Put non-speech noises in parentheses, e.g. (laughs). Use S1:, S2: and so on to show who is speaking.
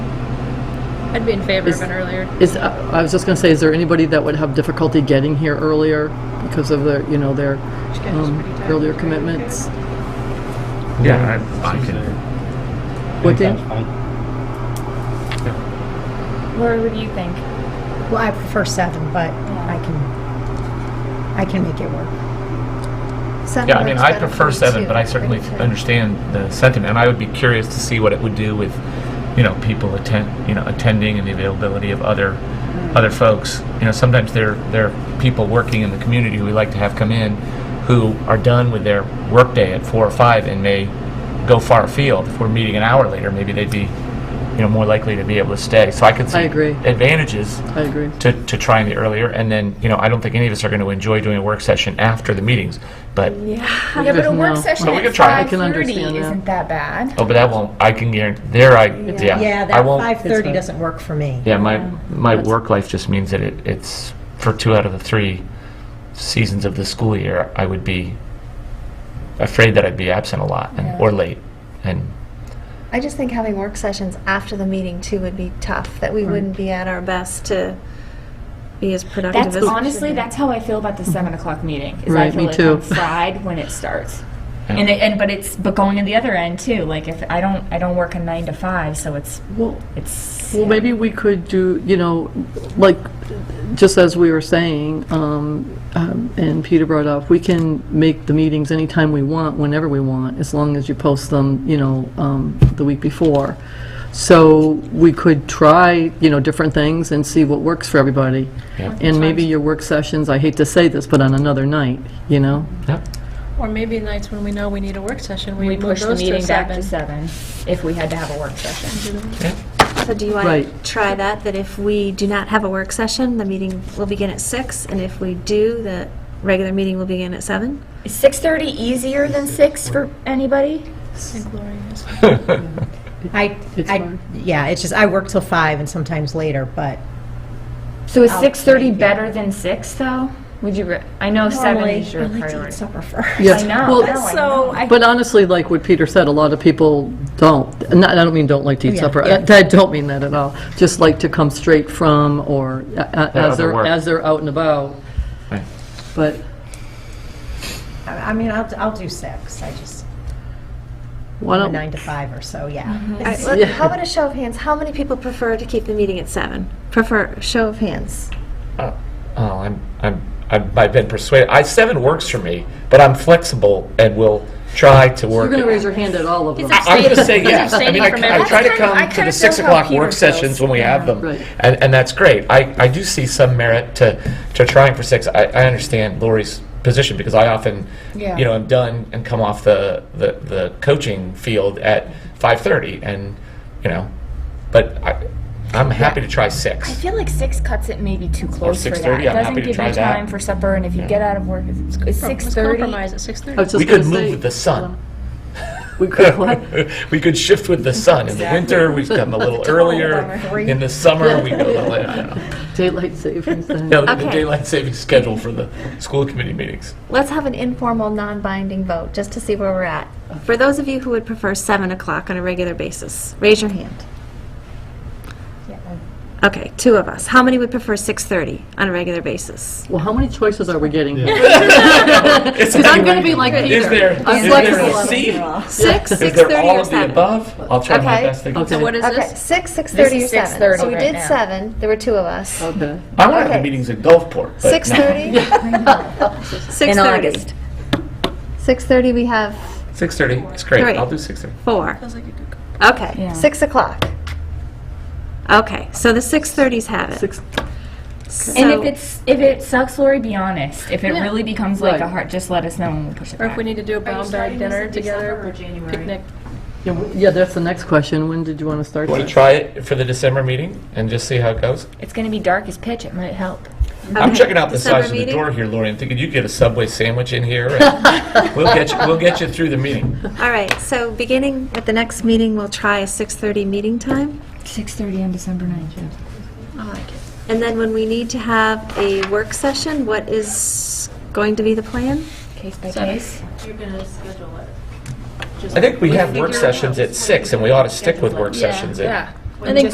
S1: I'd be in favor
S2: Is-
S1: of an earlier.
S2: Is, I I was just going to say, is there anybody that would have difficulty getting here earlier because of their, you know, their
S1: schedule's
S2: um,
S1: pretty tight.
S2: earlier commitments?
S3: Yeah, I, I can.
S2: What day?
S4: Lori, what do you think?
S5: Well, I prefer seven, but I can, I can make it work.
S3: Yeah, I mean, I prefer seven, but I certainly understand the sentiment. And I would be curious to see what it would do with, you know, people attend, you know, attending and the availability of other,
S2: Mm.
S3: other folks. You know, sometimes there, there are people working in the community who we like to have come in who are done with their workday at four or five and may go far afield. If we're meeting an hour later, maybe they'd be, you know, more likely to be able to stay. So I could see
S2: I agree.
S3: advantages
S2: I agree.
S3: to, to trying the earlier, and then, you know, I don't think any of us are going to enjoy doing a work session after the meetings, but,
S4: Yeah, but a work
S2: No.
S4: session
S3: Well, we
S4: at
S3: could try. I
S4: five
S2: can
S4: thirty
S2: understand that.
S4: isn't that bad.
S3: oh, but that won't, I can guarantee, there I, yeah.
S5: Yeah,
S3: I
S5: that
S3: won't-
S5: five
S2: It's
S5: thirty
S2: fine.
S5: doesn't work for me.
S3: Yeah, my, my work life just means that it, it's, for two out of the three seasons of the school year, I would be afraid that I'd be absent a lot, and or late, and,
S6: I just think having work sessions after the meeting too would be tough, that we wouldn't be at our best to be as productive
S4: That's
S6: as we
S4: honestly,
S6: should be.
S4: that's how I feel about the seven o'clock meeting. Is I
S2: Right,
S4: feel
S2: me
S4: like
S2: too.
S4: I'm fried when it starts.
S3: Yeah.
S4: And, it, and but it's but going to the other end too. Like if I don't I don't work a nine to five, so it's
S2: Well,
S4: it's
S2: Well, maybe we could do, you know, like, just as we were saying, um, um, and Peter brought up, we can make the meetings anytime we want, whenever we want, as long as you post them, you know, um, the week before. So we could try, you know, different things and see what works for everybody.
S3: Yeah.
S2: And maybe your work sessions, I hate to say this, but on another night, you know?
S3: yeah.
S1: Or maybe nights when we know we need a work session, we
S4: we
S1: move
S4: push the
S1: those to
S4: meeting back
S1: seven. Mm-hmm.
S4: to seven if we had to have a work session.
S6: So do you want to
S2: Right.
S6: try that, that if we do not have a work session, the meeting will begin at six, and if we do, the regular meeting will begin at seven?
S4: Is six thirty easier than six for anybody?
S5: I,
S2: It's
S5: I,
S2: fine.
S5: yeah, it's just, I work till five and sometimes later, but
S4: So is
S5: I'll
S4: six thirty
S5: make it.
S4: better than six though? Would you? Re- I know seven
S5: normally,
S4: is
S5: I
S4: your
S5: like to eat
S4: priority.
S5: supper first.
S2: Yes.
S4: I know.
S2: Well,
S4: no, I know.
S5: So I,
S2: But honestly, like what Peter said, a lot of people don't, and I don't mean don't like to eat
S5: Yeah,
S2: supper,
S5: yeah.
S2: I I don't mean that at all, just like to come straight from, or a- a-
S3: Yeah,
S2: as
S3: other
S2: they're,
S3: work.
S2: as they're out and about,
S3: Right.
S2: but,
S5: I mean, I'll, I'll do six, I just,
S2: why
S5: a
S2: don't,
S5: nine to five or so,
S4: Mm-hmm.
S5: yeah.
S6: All right, let- How about a show of hands, how many people prefer to keep the meeting at seven? Prefer, show of hands.
S3: Oh, oh, I'm, I'm, I'm- I've been persuaded, I, seven works for me, but I'm flexible and will try to
S2: you're
S3: work
S2: going
S3: it.
S2: to raise your hand at all of them.
S3: I'm going to say yes. I mean,
S1: abstaining
S3: I,
S1: from
S3: I
S1: everything.
S3: try to
S4: That's kind of- I
S3: come to
S4: kinda
S3: the six
S4: feel how
S3: o'clock
S4: Peter
S3: work
S4: feels.
S3: sessions when we have them,
S2: Right.
S3: and, and that's great. I, I do see some merit to, to trying for six. I, I understand Lori's position because I often,
S4: Yeah.
S3: you know, am done and come off the, the, the coaching field at five thirty, and you know, but I, I'm happy to try
S4: I
S3: six.
S4: feel like six cuts it maybe too close for that.
S3: 6:30,
S4: It
S3: I'm happy
S4: doesn't
S3: to
S4: give
S3: try
S4: you
S3: that.
S4: time for supper, and if you get out of work, it's- it's six
S1: Let's
S4: thirty. Oh,
S1: compromise at six
S2: I
S1: thirty.
S2: was
S3: We
S2: just
S3: could
S2: going to
S3: move with the
S2: say,
S3: sun. (laughs)
S2: we could, what?
S3: we could shift with the sun. In the winter, we come
S2: (laughs)
S3: a little earlier. In the summer, we go a little later.
S2: daylight savings time.
S3: No, the
S6: Okay.
S3: daylight savings schedule for the school committee
S6: (laughs)
S3: meetings.
S6: Let's have an informal, non-binding vote, just to see where we're at. For those of you who would prefer 7 o'clock on a regular basis, raise your hand. Okay, two of us. How many would prefer 6:30 on a regular basis?
S2: Well, how many choices are we getting? (laughs) Because
S3: Because
S2: I'm going to be like Peter.
S3: Is there, is
S2: I'm
S3: there
S2: flexible.
S3: a C?
S6: 6,
S3: Is there
S6: 6:30,
S3: all
S6: or
S3: of the
S6: 7?
S3: above? I'll try my
S6: Okay.
S3: best. to-
S2: Okay.
S1: What is
S6: Okay,
S1: this?
S6: 6, 6:30,
S4: This
S6: or
S4: is
S6: 7.
S4: 6:30
S6: So we
S4: right
S6: did
S4: now.
S6: 7, there were two of us.
S2: Okay.
S3: I want to have
S6: Okay.
S3: the meetings at Gulfport. but no.
S4: (laughs)
S6: 6:30? 6:30.
S4: August.
S6: 6:30, we have
S3: 6:30, it's great.
S6: Three.
S3: I'll do 6:30.
S6: 4.
S1: Feels like a good-
S6: Okay,
S4: Yeah.
S6: 6 o'clock. Okay, so the 6:30s have it.
S2: Six,
S4: And
S6: So-
S4: if it's if it sucks, Lori, be honest. If it really becomes like a
S2: Right.
S4: heart, just let us know and we'll push it
S1: Or
S4: back.
S1: if we need to do a brown bag dinner together, picnic.
S2: yeah, w- yeah, that's the next question, when did you want to start
S3: Want
S2: that?
S3: to try it for the December meeting and just see how it goes?
S4: it's going to be dark as pitch. It might help.
S3: I'm
S6: Okay,
S3: checking out the
S6: December
S3: size of the
S6: meeting?
S3: door here, Lori. I'm thinking you get a Subway sandwich in here.
S6: (laughs)
S3: and We'll get you, we'll get you through the meeting.
S6: All right, so beginning at the next meeting, we'll try a 6:30 meeting time.
S4: Six thirty on December 9th.
S6: And then when we need to have a work session, what is going to be the plan?
S4: Case by case.
S3: I think we have work sessions at six, and we ought to stick with work sessions at
S1: I think